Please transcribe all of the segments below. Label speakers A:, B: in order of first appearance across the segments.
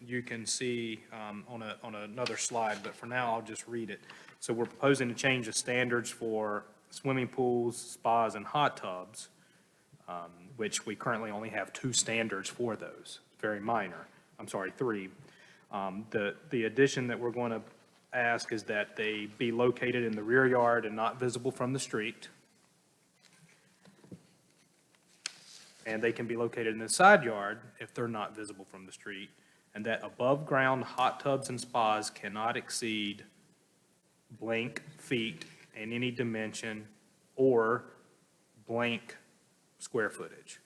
A: you can see um, on a, on another slide, but for now, I'll just read it. So we're proposing to change the standards for swimming pools, spas, and hot tubs, um, which we currently only have two standards for those, very minor, I'm sorry, three. Um, The, the addition that we're going to ask is that they be located in the rear yard and not visible from the street. and they can be located in the side yard if they're not visible from the street, and that above-ground hot tubs and spas cannot exceed blank feet in any dimension or blank square footage.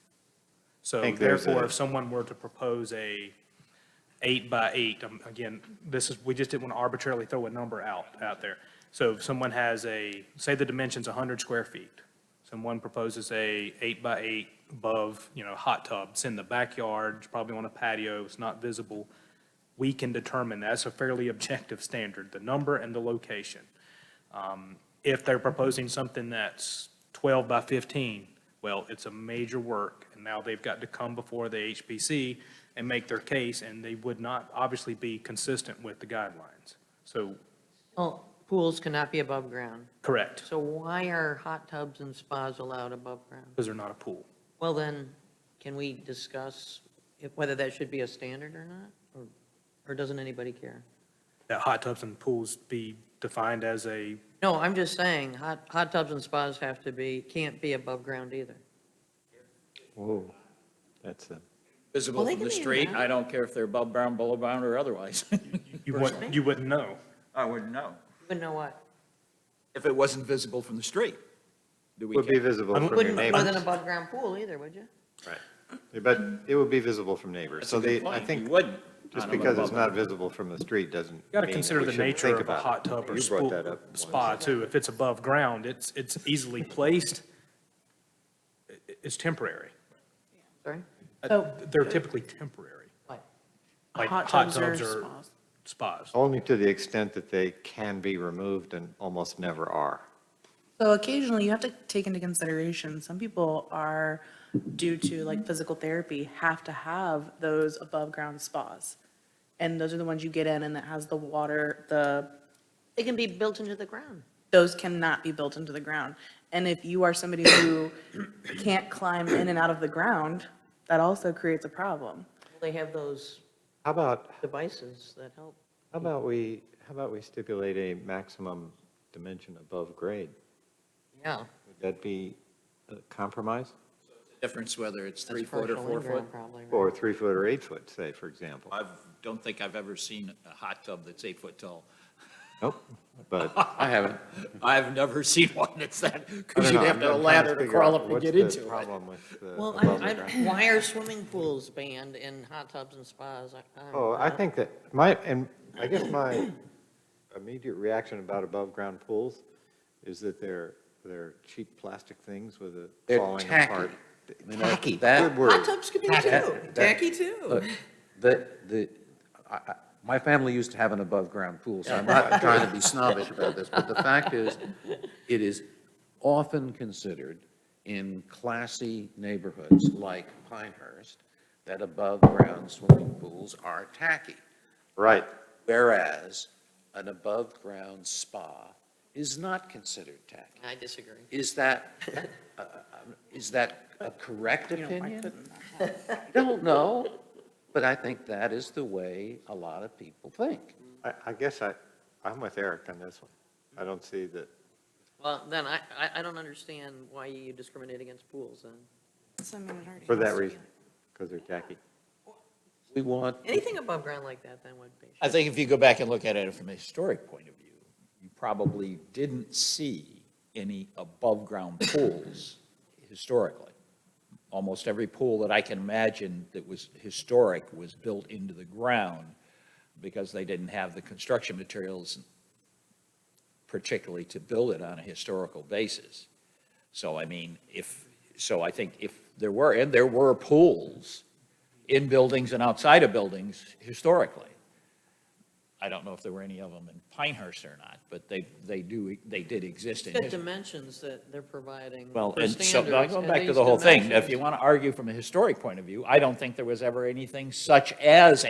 A: So
B: think there's
A: therefore,
B: a-
A: if someone were to propose a eight by eight, um, again, this is, we just didn't want to arbitrarily throw a number out, out there. So if someone has a, say the dimension's 100 square feet, someone proposes a eight by eight above, you know, hot tub, it's in the backyard, it's probably on a patio, it's not visible, we can determine, that's a fairly objective standard, the number and the location. Um, If they're proposing something that's 12 by 15, well, it's a major work, and now they've got to come before the HPC and make their case, and they would not obviously be consistent with the guidelines. So,
C: Well, pools cannot be above ground.
A: correct,
C: So why are hot tubs and spas allowed above ground?
A: because they're not a pool.
C: Well, then, can we discuss if- whether that should be a standard or not? Or- Or doesn't anybody care?
A: That hot tubs and pools be defined as a,
C: No, I'm just saying, hot, hot tubs and spas have to be, can't be above ground either.
B: Whoa, that's a,
C: Well,
D: visible
C: they
D: from the
C: can be
D: street.
C: around.
D: I don't care if they're above ground, below ground, or otherwise.
A: you wouldn't, you wouldn't know.
D: I wouldn't know.
C: Wouldn't know what?
D: If it wasn't visible from the street, do we
B: would be
D: care?
B: visible
A: I'm-
B: from your
C: Wouldn't, with
B: neighbors.
C: an above ground pool either, would you?
B: But it would be visible from neighbors.
D: That's
B: So
D: a good
B: they, I
D: point.
B: think,
D: You wouldn't.
B: just
D: on an
B: because it's
D: above-
B: not visible from the street doesn't
A: You got to
B: mean that
A: consider
B: we
A: the
B: shouldn't
A: nature of
B: think
A: a
B: about it.
A: hot tub or
B: You brought
A: spool-
B: that up once.
A: spa, too. If it's above ground, it's, it's easily placed, i- i- it's temporary.
C: Sorry?
E: So-
A: They're typically temporary,
C: What?
A: like
E: Hot
A: hot
E: tubs
A: tubs
E: or
A: or
E: spas.
A: spas.
B: Only to the extent that they can be removed and almost never are.
E: So occasionally you have to take into consideration, some people are, due to like physical therapy, have to have those above ground spas. And those are the ones you get in and that has the water, the,
C: They can be built into the ground.
E: those cannot be built into the ground. And if you are somebody who can't climb in and out of the ground, that also creates a problem.
C: They have those
B: How about,
C: devices that help.
B: how about we, how about we stipulate a maximum dimension above grade?
C: Yeah.
B: Would that be a compromise?
D: Difference whether it's
C: That's
D: three foot or
C: partial
D: four foot.
C: in-ground Probably, right?
B: Or three foot or eight foot, say, for example?
D: I don't think I've ever seen a hot tub that's eight foot tall.
B: Nope, but
F: I haven't.
D: I've never seen one that's that,
B: I
D: because
B: don't
D: you'd
B: know,
D: have
B: I'm- I'm
D: to have a
B: trying
D: ladder to
B: figure
D: crawl
B: out
D: up and
B: what's
D: get
B: the
D: into it.
B: problem with the
C: Well,
B: above
C: I,
B: ground.
C: I, why are swimming pools banned and hot tubs and spas? don't
B: Oh, I
C: know.
B: think that my, and I guess my immediate reaction about above-ground pools is that they're, they're cheap plastic things with a
F: They're
B: falling
F: tacky.
B: apart.
F: I mean,
B: Tacky,
F: that-
B: good
C: Hot
B: word.
C: tubs could be too,
F: That-
C: tacky too.
F: Look, Uh, the, the, I, I, my family used to have an above-ground pool, so I'm not trying to be snobbish about this, but the fact is, it is often considered in classy neighborhoods like Pinehurst that above-ground swimming pools are tacky.
B: Right,
F: Whereas an above-ground spa is not considered tacky.
C: I disagree.
F: Is that, uh, um, is that a correct
E: You know, I
F: opinion?
E: couldn't.
F: Don't know, but I think that is the way a lot of people think.
B: I, I guess I, I'm with Eric on this one. I don't see that,
C: Well, then I, I, I don't understand why you discriminate against pools then.
E: So, I mean, it already
B: for
E: has
B: that
E: to be
B: reason, because they're tacky.
F: We want,
C: Anything above ground like that then would be.
D: I think if you go back and look at it from a historic point of view, you probably didn't see any above-ground pools historically. Almost every pool that I can imagine that was historic was built into the ground because they didn't have the construction materials particularly to build it on a historical basis. So I mean, if, so I think if there were, and there were pools in buildings and outside of buildings historically. I don't know if there were any of them in Pinehurst or not, but they, they do, they did exist in
C: Got
D: history.
C: dimensions that they're providing
D: Well,
C: for
D: and so,
C: standards.
D: now going
C: and
D: back to
C: these
D: the whole thing, if
C: dimensions-
D: you want to argue from a historic point of view, I don't think there was ever anything such as